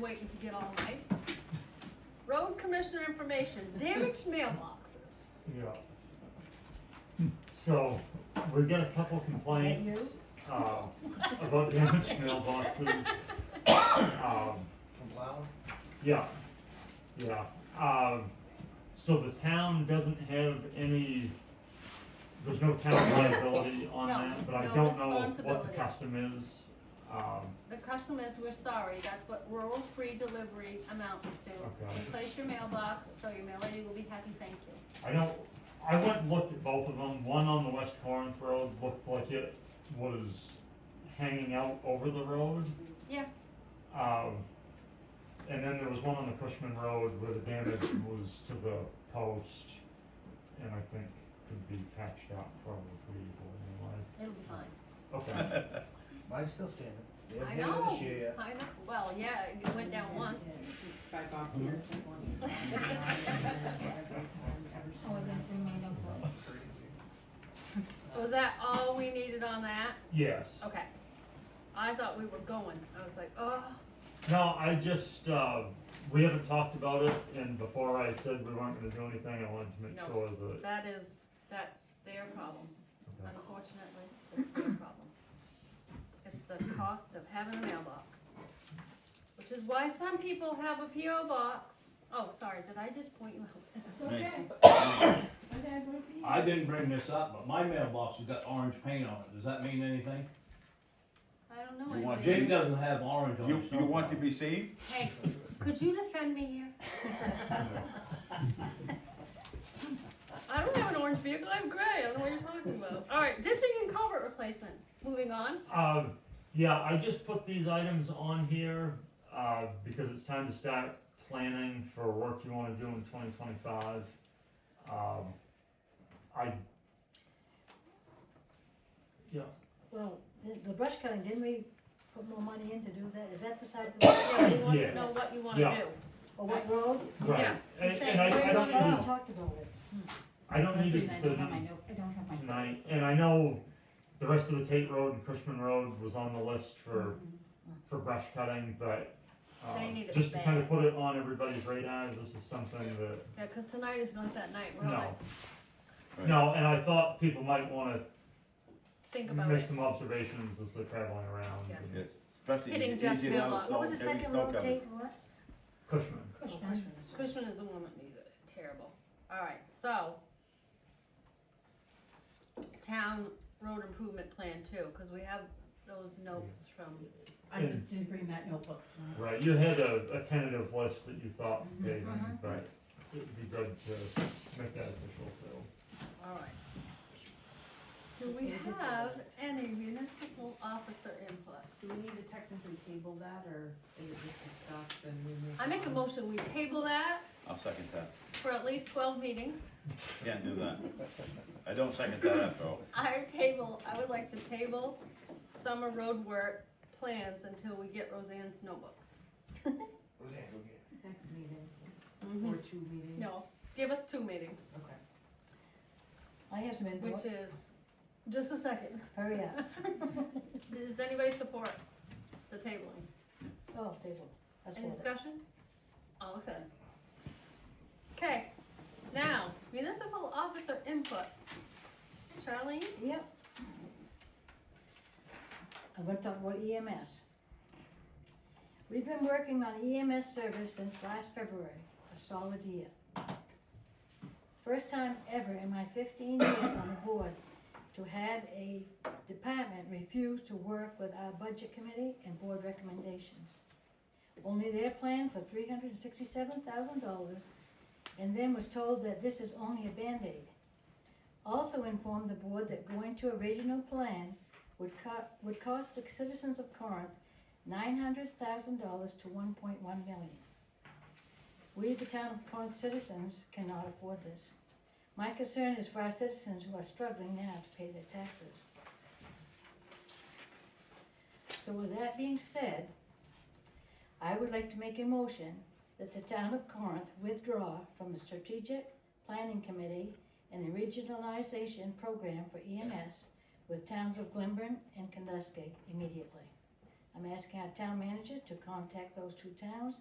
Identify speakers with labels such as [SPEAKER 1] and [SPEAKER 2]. [SPEAKER 1] waiting to get all right. Road commissioner information, damaged mailboxes.
[SPEAKER 2] Yeah. So, we get a couple complaints, uh, about damaged mailboxes. Um,
[SPEAKER 3] From plowing?
[SPEAKER 2] yeah, yeah, um, so the town doesn't have any, there's no town liability on
[SPEAKER 1] No,
[SPEAKER 2] that, but I
[SPEAKER 1] no
[SPEAKER 2] don't know what the
[SPEAKER 1] responsibility.
[SPEAKER 2] custom is. Um,
[SPEAKER 1] The custom is, we're sorry, that's what rural free delivery amounts to.
[SPEAKER 2] Okay.
[SPEAKER 1] Replace your mailbox, so your mail lady will be happy, thank you.
[SPEAKER 2] I know, I went and looked at both of them, one on the West Corinth Road looked like it was hanging out over the road.
[SPEAKER 1] Yes,
[SPEAKER 2] Um, and then there was one on the Cushman Road where the damage was to the post, and I think could be patched out probably pretty easily
[SPEAKER 1] it'll be fine.
[SPEAKER 2] anyway. Okay,
[SPEAKER 3] Mine's still standing. They
[SPEAKER 1] I
[SPEAKER 3] haven't hit it
[SPEAKER 1] know,
[SPEAKER 3] this year yet.
[SPEAKER 1] I know, well, yeah, it went down once.
[SPEAKER 4] By Bob Pierce, that one.
[SPEAKER 5] Oh, I didn't bring mine up.
[SPEAKER 1] Was that all we needed on that?
[SPEAKER 2] yes.
[SPEAKER 1] Okay. I thought we were going, I was like, oh,
[SPEAKER 2] No, I just, uh, we haven't talked about it, and before I said we weren't gonna do anything, I wanted to make
[SPEAKER 1] No.
[SPEAKER 2] sure that.
[SPEAKER 1] that is, that's their problem.
[SPEAKER 2] okay.
[SPEAKER 1] Unfortunately, it's their problem. It's the cost of having a mailbox. Which is why some people have a PO box. Oh, sorry, did I just point you out?
[SPEAKER 5] It's okay. My dad would be.
[SPEAKER 6] I didn't bring this up, but my mailbox has got orange paint on it. Does that mean anything?
[SPEAKER 1] I don't know
[SPEAKER 6] You want-
[SPEAKER 1] anything.
[SPEAKER 6] Jake doesn't have orange on
[SPEAKER 7] You,
[SPEAKER 6] his.
[SPEAKER 7] you want to be seen?
[SPEAKER 1] Hey, could you defend me here? I don't have an orange vehicle, I'm gray, I don't know what you're talking about. Alright, ditching and culvert replacement, moving on.
[SPEAKER 2] Uh, yeah, I just put these items on here, uh, because it's time to start planning for work you wanna do in twenty twenty-five. Um, I, yeah,
[SPEAKER 8] Well, the, the brush cutting, didn't we put more money in to do that? Is that the side of the,
[SPEAKER 1] Yeah, he wants to
[SPEAKER 2] Yes.
[SPEAKER 1] know what you
[SPEAKER 2] Yeah.
[SPEAKER 1] wanna do.
[SPEAKER 8] or what road?
[SPEAKER 2] right,
[SPEAKER 1] Yeah,
[SPEAKER 2] and,
[SPEAKER 1] he's
[SPEAKER 2] and
[SPEAKER 1] saying, where
[SPEAKER 2] I, I
[SPEAKER 1] do
[SPEAKER 2] don't
[SPEAKER 1] you wanna
[SPEAKER 8] We
[SPEAKER 2] need,
[SPEAKER 1] go?
[SPEAKER 8] talked about it.
[SPEAKER 2] I don't
[SPEAKER 4] That's
[SPEAKER 2] need
[SPEAKER 4] the
[SPEAKER 2] a
[SPEAKER 4] reason I don't have my
[SPEAKER 2] decision
[SPEAKER 4] note, I don't have my.
[SPEAKER 2] tonight, and I know the rest of the Tate Road and Cushman Road was on the list for, for brush cutting, but, uh,
[SPEAKER 1] They need it
[SPEAKER 2] just to kinda
[SPEAKER 1] bad.
[SPEAKER 2] put it on everybody's radar, this is something that
[SPEAKER 1] Yeah, cause tonight is not that night, we're all
[SPEAKER 2] No.
[SPEAKER 1] like,
[SPEAKER 7] Right.
[SPEAKER 2] No, and I thought people might wanna
[SPEAKER 1] think about
[SPEAKER 2] make
[SPEAKER 1] it.
[SPEAKER 2] some observations as they're traveling around.
[SPEAKER 1] Yes.
[SPEAKER 7] Yes, especially
[SPEAKER 1] Hitting
[SPEAKER 7] easy
[SPEAKER 1] Jeff's
[SPEAKER 7] easy now,
[SPEAKER 1] mailbox.
[SPEAKER 7] so
[SPEAKER 8] What was the
[SPEAKER 7] every
[SPEAKER 8] second
[SPEAKER 7] snow
[SPEAKER 8] road
[SPEAKER 7] cover.
[SPEAKER 8] date, what?
[SPEAKER 2] Cushman,
[SPEAKER 8] Cushman.
[SPEAKER 1] Cushman is the one that needs it, terrible. Alright, so. Town road improvement plan too, cause we have those notes from,
[SPEAKER 4] I just didn't bring that notebook tonight.
[SPEAKER 2] right, you had a, a tentative list that you thought
[SPEAKER 1] Mm-hmm.
[SPEAKER 2] for paving, but it'd be good to make that official too.
[SPEAKER 1] alright. Do we have any municipal officer input?
[SPEAKER 4] Do we need to technically table that, or is it just discussed and we move?
[SPEAKER 1] I make a
[SPEAKER 4] on?
[SPEAKER 1] motion, we table that
[SPEAKER 7] I'll second that,
[SPEAKER 1] for at least twelve meetings.
[SPEAKER 7] can't do that. I don't second that after all.
[SPEAKER 1] I table, I would like to table summer road work plans until we get Roseanne's notebook.
[SPEAKER 3] Roseanne, go get it.
[SPEAKER 4] Next meeting, or two meetings?
[SPEAKER 1] No, give us two meetings,
[SPEAKER 4] Okay.
[SPEAKER 8] I have some
[SPEAKER 1] which
[SPEAKER 8] input,
[SPEAKER 1] is, just a second.
[SPEAKER 8] hurry up.
[SPEAKER 1] Does anybody support the tabling?
[SPEAKER 8] Oh, table, that's
[SPEAKER 1] Any
[SPEAKER 8] what.
[SPEAKER 1] discussion? All excited. Okay, now, municipal officer input. Charlene?
[SPEAKER 8] Yep. I'm gonna talk about EMS. E We've been working on EMS service since last February, a solid year. First time ever in my fifteen years on the board to have a department refuse to work with our budget committee and board recommendations. Only their plan for three hundred and sixty-seven thousand dollars, and then was told that this is only a Band-Aid also informed the board that going to a regional plan would co- would cost the citizens of Corinth nine hundred thousand dollars to one point one million. We, the town of Corinth citizens, cannot afford this. My concern is for our citizens who are struggling now to pay their taxes. So with that being said, I would like to make a motion that the town of Corinth withdraw from the strategic planning committee and the regionalization E program for EMS with towns of Glenburn and Kandusky immediately. I I'm asking our town manager to contact those two towns